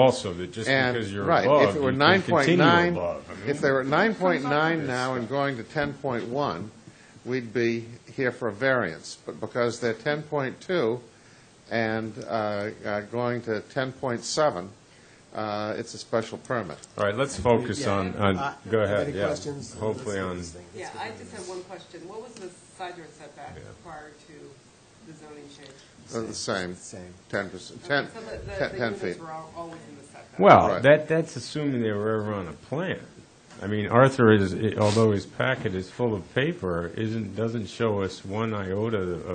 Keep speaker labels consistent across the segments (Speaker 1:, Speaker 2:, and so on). Speaker 1: also, that just
Speaker 2: And,
Speaker 1: because you're
Speaker 2: right,
Speaker 1: above,
Speaker 2: if it
Speaker 1: you
Speaker 2: were
Speaker 1: can
Speaker 2: nine point
Speaker 1: continue
Speaker 2: nine,
Speaker 1: above. I mean,
Speaker 2: if they were at nine point nine now and going to ten point one, we'd be here for a variance. But because they're ten point two and uh, uh, going to ten point seven, uh, it's a special permit.
Speaker 1: All right, let's focus on,
Speaker 3: uh,
Speaker 1: on, go ahead, yeah. Hopefully on,
Speaker 4: Yeah, I just have one question. What was the side yard setback prior to the zoning change?
Speaker 2: They're Oh, the same,
Speaker 3: Same.
Speaker 2: ten percent,
Speaker 4: Okay,
Speaker 2: ten,
Speaker 4: So the-
Speaker 2: ten- ten
Speaker 4: The the
Speaker 2: feet.
Speaker 4: units were all all within the setback.
Speaker 1: well,
Speaker 2: Right.
Speaker 1: that, that's assuming they were ever on a plan. I mean, Arthur is, although his packet is full of paper, isn't, doesn't show us one iota of,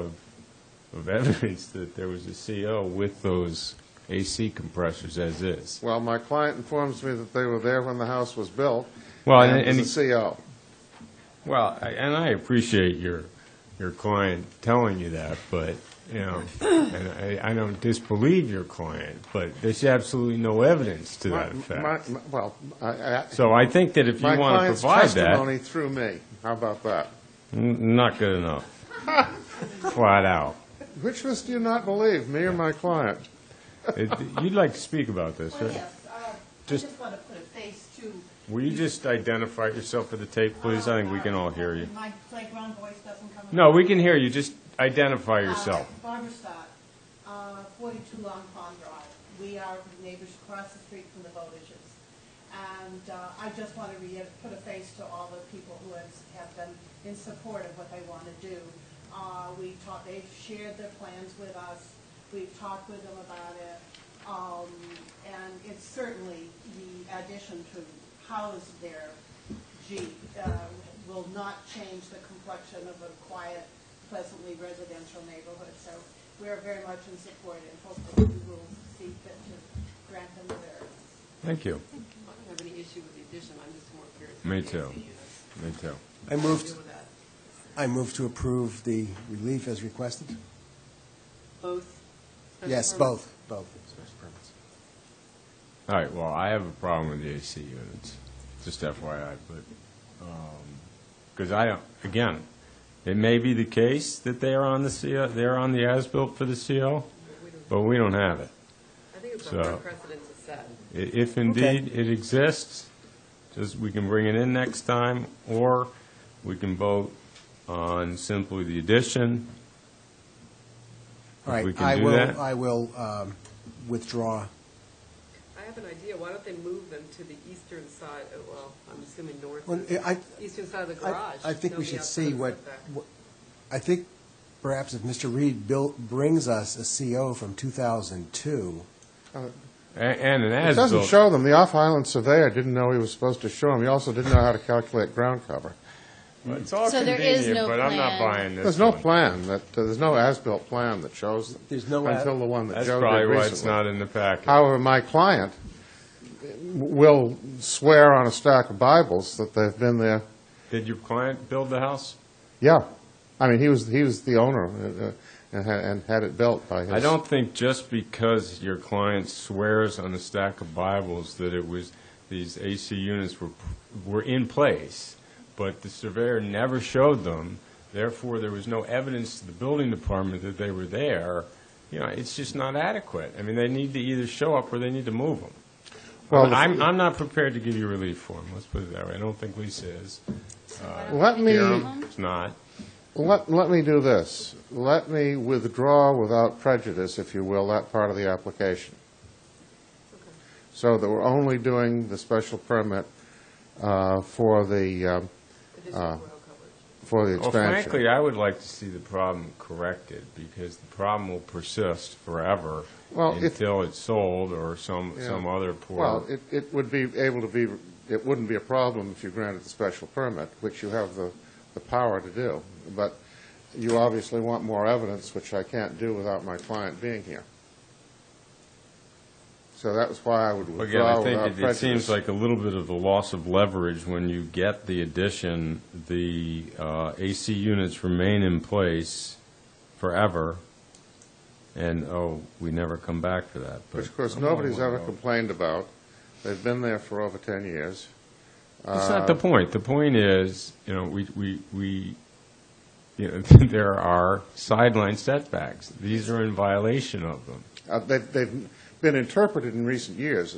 Speaker 1: of evidence that there was a CO with those AC compressors as is.
Speaker 2: Well, my client informs me that they were there when the house was built.
Speaker 1: Well,
Speaker 2: and
Speaker 1: and-
Speaker 2: it was
Speaker 1: and-
Speaker 2: a CO.
Speaker 1: Well, I- and I appreciate your, your client telling you that, but, you know, and I, I don't disbelieve your client, but there's absolutely no evidence to that
Speaker 2: My-
Speaker 1: effect.
Speaker 2: my- my- Well, I- I-
Speaker 1: So I think that if you
Speaker 2: my
Speaker 1: want to
Speaker 2: client's
Speaker 1: provide that,
Speaker 2: testimony through me, how about that?
Speaker 1: n- not good enough. Flat out.
Speaker 2: Which of us do you not believe, me or my client?
Speaker 1: It- You'd like to speak about this,
Speaker 5: Well,
Speaker 1: right?
Speaker 5: yes, uh, I
Speaker 1: Just-
Speaker 5: just want to put a face to.
Speaker 1: Will you just identify yourself for the tape, please? I think we can all hear you.
Speaker 5: My playground voice doesn't come.
Speaker 1: No, we can hear you, just identify yourself.
Speaker 5: Uh, Barbara Stott, uh, 42 Long Pond Drive. We are neighbors across the street from the Bowditches. And uh, I just want to re- put a face to all the people who have have been in support of what they want to do. Uh, We talked, they've shared their plans with us, we've talked with them about it. Um, And it's certainly the addition to house their Jeep uh, will not change the complexion of a quiet, pleasantly residential neighborhood. So we are very much in support and hopefully we will see fit to grant them the variance.
Speaker 1: Thank you.
Speaker 4: I don't have any issue with the addition. I'm just more curious.
Speaker 1: Me
Speaker 4: about the
Speaker 1: too.
Speaker 4: AC units.
Speaker 1: Me too.
Speaker 3: I
Speaker 4: Deal
Speaker 3: moved,
Speaker 4: with that.
Speaker 3: I moved to approve the relief as requested.
Speaker 4: Both? special
Speaker 3: Yes,
Speaker 4: permits?
Speaker 3: both, both. special permits.
Speaker 1: All right, well, I have a problem with the AC units, just FYI, but, because I don't, again, it may be the case that they are on the CO, they're on the as-built for the CO, but we don't have it.
Speaker 4: I think it's a
Speaker 1: So-
Speaker 4: hard precedent to set.
Speaker 1: I- If indeed it exists, just, we can bring it in next time, or we can vote on simply the addition.
Speaker 3: All
Speaker 1: If we
Speaker 3: right,
Speaker 1: can
Speaker 3: I
Speaker 1: do that.
Speaker 3: will, I will um, withdraw.
Speaker 4: I have an idea. Why don't they move them to the eastern side, oh, well, I'm assuming north,
Speaker 3: Well, I,
Speaker 4: eastern side of the
Speaker 3: I-
Speaker 4: garage?
Speaker 3: I think
Speaker 4: They'll
Speaker 3: we
Speaker 4: be
Speaker 3: should
Speaker 4: outside of
Speaker 3: see
Speaker 4: the
Speaker 3: what,
Speaker 4: setback.
Speaker 3: what- I think perhaps if Mr. Reed built, brings us a CO from 2002,
Speaker 1: A- And an
Speaker 2: It doesn't
Speaker 1: as-built,
Speaker 2: show them. The off-island surveyor didn't know he was supposed to show them. He also didn't know how to calculate ground cover.
Speaker 1: it's all
Speaker 6: So there is
Speaker 1: convenient,
Speaker 6: no
Speaker 1: but I'm not
Speaker 6: plan.
Speaker 1: buying this
Speaker 2: There's no
Speaker 1: one.
Speaker 2: plan that, uh, there's no as-built plan that shows them.
Speaker 3: There's no a-
Speaker 2: Until the one that
Speaker 1: That's
Speaker 2: Joe did
Speaker 1: probably why it's
Speaker 2: recently.
Speaker 1: not in the package.
Speaker 2: However, my client will swear on a stack of Bibles that they've been there,
Speaker 1: Did your client build the house?
Speaker 2: yeah. I mean, he was, he was the owner uh, uh, and had- and had it built by his.
Speaker 1: I don't think just because your client swears on a stack of Bibles that it was, these AC units were, were in place, but the surveyor never showed them, therefore there was no evidence to the building department that they were there, you know, it's just not adequate. I mean, they need to either show up or they need to move them.
Speaker 2: Well,
Speaker 1: I'm, I'm not prepared to give you relief for them, let's put it that way. I don't think Lisa is.
Speaker 2: Let me.
Speaker 1: It's not.
Speaker 2: Let, let me do this. Let me withdraw without prejudice, if you will, that part of the application. So that we're only doing the special permit uh, for the, um,
Speaker 4: Additional ground coverage.
Speaker 2: for the
Speaker 1: Well,
Speaker 2: expansion.
Speaker 1: frankly, I would like to see the problem corrected, because the problem will persist forever
Speaker 2: Well, if-
Speaker 1: until it's sold or some,
Speaker 2: Yeah.
Speaker 1: some other poor,
Speaker 2: Well, it, it would be able to be, it wouldn't be a problem if you granted the special permit, which you have the, the power to do. But you obviously want more evidence, which I can't do without my client being here. So that was why I would
Speaker 1: again,
Speaker 2: withdraw
Speaker 1: I
Speaker 2: without
Speaker 1: think
Speaker 2: prejudice.
Speaker 1: it- it seems like a little bit of a loss of leverage when you get the addition, the uh, AC units remain in place forever, and, oh, we never come back for that. but
Speaker 2: Which, of course,
Speaker 1: I'm all
Speaker 2: nobody's
Speaker 1: worried
Speaker 2: ever
Speaker 1: about-
Speaker 2: complained about. They've been there for over 10 years.
Speaker 1: That's
Speaker 2: uh,
Speaker 1: not the point. The point is, you know, we, we, we, you know, there are sideline setbacks. These are in violation of them.
Speaker 2: Uh, they- They've been interpreted in recent years